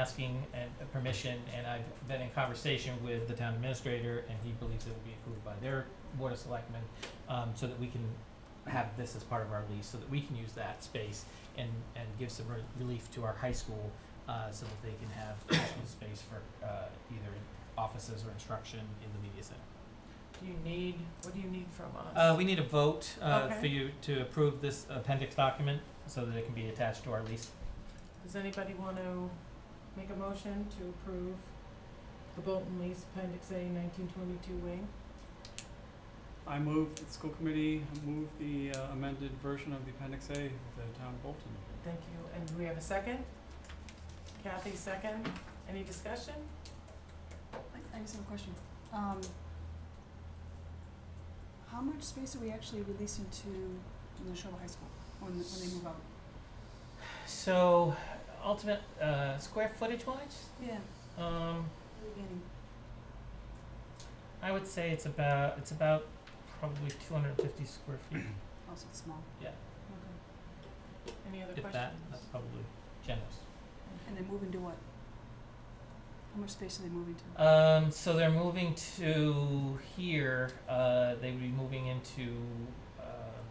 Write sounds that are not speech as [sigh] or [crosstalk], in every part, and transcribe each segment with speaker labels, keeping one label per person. Speaker 1: asking and uh, permission, and I've been in conversation with the town administrator, and he believes it will be approved by their board of selectmen, um, so that we can have this as part of our lease, so that we can use that space and, and give some re- relief to our high school, uh, so that they can have additional space for, uh, either offices or instruction in the media center.
Speaker 2: Do you need, what do you need from us?
Speaker 1: Uh, we need a vote, uh,
Speaker 2: Okay.
Speaker 1: for you to approve this appendix document, so that it can be attached to our lease.
Speaker 2: Does anybody want to make a motion to approve the Bolton lease appendix A nineteen twenty-two wing?
Speaker 3: I move, that the school committee move the uh, amended version of the appendix A of the town of Bolton.
Speaker 2: Thank you, and do we have a second? Kathy, second, any discussion?
Speaker 4: I just have a question. Um, how much space are we actually releasing to Neshoba High School when, when they move out?
Speaker 1: So, ultimate, uh, square footage wise,
Speaker 4: Yeah,
Speaker 1: um,
Speaker 4: beginning.
Speaker 1: I would say it's about, it's about probably two hundred and fifty square feet,
Speaker 4: Also, Oh, it's small.
Speaker 1: Yeah.
Speaker 4: Okay.
Speaker 2: Any other
Speaker 1: if
Speaker 2: questions?
Speaker 1: that, that's probably generous.
Speaker 4: And they move into what? How much space are they moving to?
Speaker 1: Um, so they're moving to here, uh, they would be moving into, um,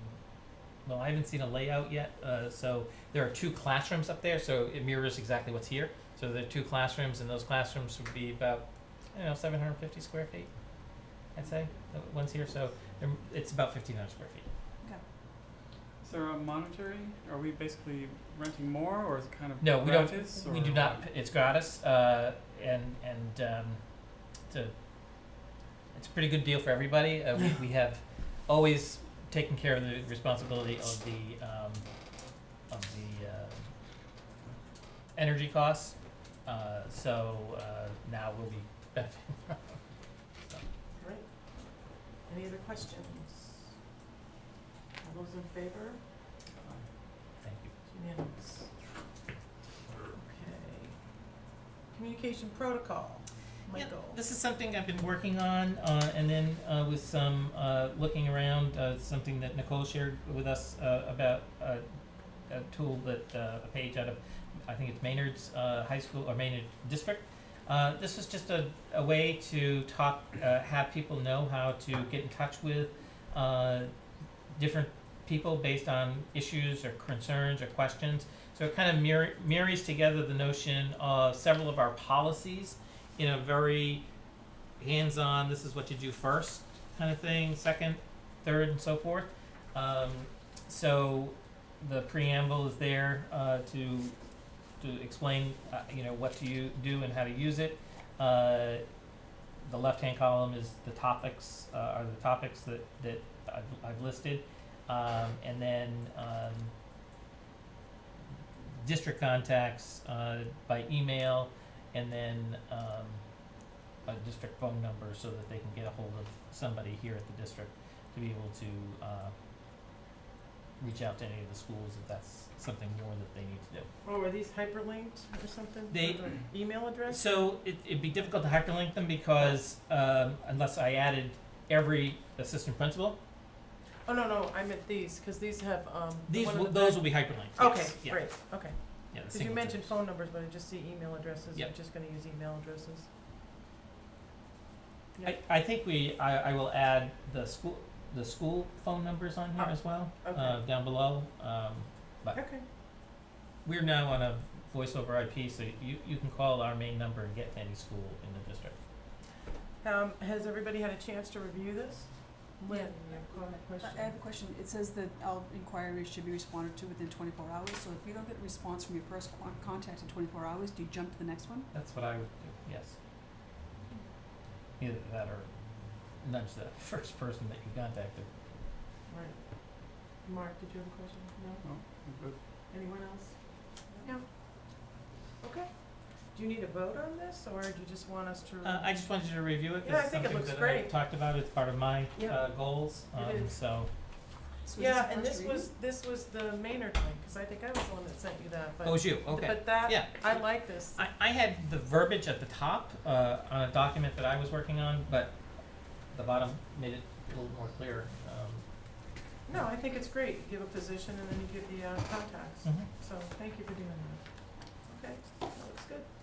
Speaker 1: well, I haven't seen a layout yet, uh, so there are two classrooms up there, so it mirrors exactly what's here. So there are two classrooms, and those classrooms would be about, I don't know, seven hundred and fifty square feet, I'd say, the one's here, so they're, it's about fifteen hundred square feet.
Speaker 3: Is there a monetary, are we basically renting more or is it kind of
Speaker 1: No, we don't-
Speaker 3: gratis?
Speaker 1: We
Speaker 3: or
Speaker 1: do not,
Speaker 3: what?
Speaker 1: it's gratis, uh, and, and, um, it's a, it's a pretty good deal for everybody. Uh, we, we have always taken care of the responsibility of the, um, of the, uh, energy costs. Uh, so, uh, now we'll be benefiting from, so.
Speaker 2: Great. Any other questions? All those in favor?
Speaker 1: Thank you.
Speaker 2: It's Unanimous. Okay. Communication protocol,
Speaker 1: Yep,
Speaker 2: Michael.
Speaker 1: This is something I've been working on, uh, and then, uh, with some, uh, looking around, uh, something that Nicole shared with us, uh, about, uh, a tool that, uh, a page out of, I think it's Maynard's, uh, high school, or Maynard district. Uh, this was just a, a way to talk, uh, have people know how to get in touch with, uh, different people based on issues or concerns or questions. So it kind of mirror, marries together the notion of several of our policies in a very hands-on this is what you do first kind of thing second third and so forth um, so the preamble is there uh, to to explain uh, you know what to you do and how to use it uh, the left-hand column is the topics uh, are the topics that that I've, I've listed um, and then um, district contacts uh, by email and then um, a district phone number so that they can get a hold of somebody here at the district to be able to uh, reach out to any of the schools if that's something more that they need to do.
Speaker 2: Oh, are these hyperlinked or something? for
Speaker 1: They-
Speaker 2: the Email address?
Speaker 1: So it, it'd be difficult to hyperlink them because um, unless I added every assistant principal,
Speaker 2: Oh, no, no, I meant these, cause these have, um, the
Speaker 1: these
Speaker 2: one in
Speaker 1: will,
Speaker 2: the
Speaker 1: those
Speaker 2: back-
Speaker 1: will be hyperlinked.
Speaker 2: Okay,
Speaker 1: yes, yeah,
Speaker 2: great, okay.
Speaker 1: yeah, the
Speaker 2: Cause you
Speaker 1: singletons.
Speaker 2: mentioned phone numbers, but I just see email addresses, I'm
Speaker 1: Yep.
Speaker 2: just gonna use email addresses.
Speaker 1: I, I think we, I, I will add the school, the school phone numbers on here
Speaker 2: Oh,
Speaker 1: as well,
Speaker 2: okay.
Speaker 1: uh, down below. Um, but
Speaker 2: Okay,
Speaker 1: We're now on a voice over IP, so you, you can call our main number and get to any school in the district.
Speaker 2: um, has everybody had a chance to review this? Lynn,
Speaker 4: Yeah.
Speaker 2: you have a comment,
Speaker 4: I
Speaker 2: question?
Speaker 4: I have a question. It says that all inquiries should be responded to within twenty-four hours, so if you don't get a response from your first qu- contact in twenty-four hours, do you jump to the next one?
Speaker 1: That's what I would do, yes. Either that or nudge the [laughs] first person that you contacted.
Speaker 2: Right. Mark, did you have a question? No?
Speaker 3: Good.
Speaker 2: Anyone else? No. Okay. Do you need a vote on this, or do you just want us to?
Speaker 1: Uh, I just wanted you to review it,
Speaker 2: Mm-hmm. Yeah, I
Speaker 1: this is
Speaker 2: think it
Speaker 1: something
Speaker 2: looks
Speaker 1: that I
Speaker 2: great.
Speaker 1: talked about, it's part of my,
Speaker 2: Yeah.
Speaker 1: uh, goals,
Speaker 2: It
Speaker 1: um,
Speaker 2: is.
Speaker 1: so.
Speaker 4: So is this
Speaker 2: Yeah,
Speaker 4: the
Speaker 2: and
Speaker 4: first
Speaker 2: this
Speaker 4: reading?
Speaker 2: was, this was the Maynard thing, cause I think I was the one that sent you that, but.
Speaker 1: Oh, it's you, okay.
Speaker 2: But that,
Speaker 1: Yeah.
Speaker 2: I like this.
Speaker 1: I, I had the verbiage at the top, uh, on a document that I was working on, but the bottom made it a little more clear, um.
Speaker 2: No, I think it's great. You give a
Speaker 1: Mm.
Speaker 2: Mm-hmm. position and then you give the uh, contacts. So thank you for doing that. Okay, that looks good.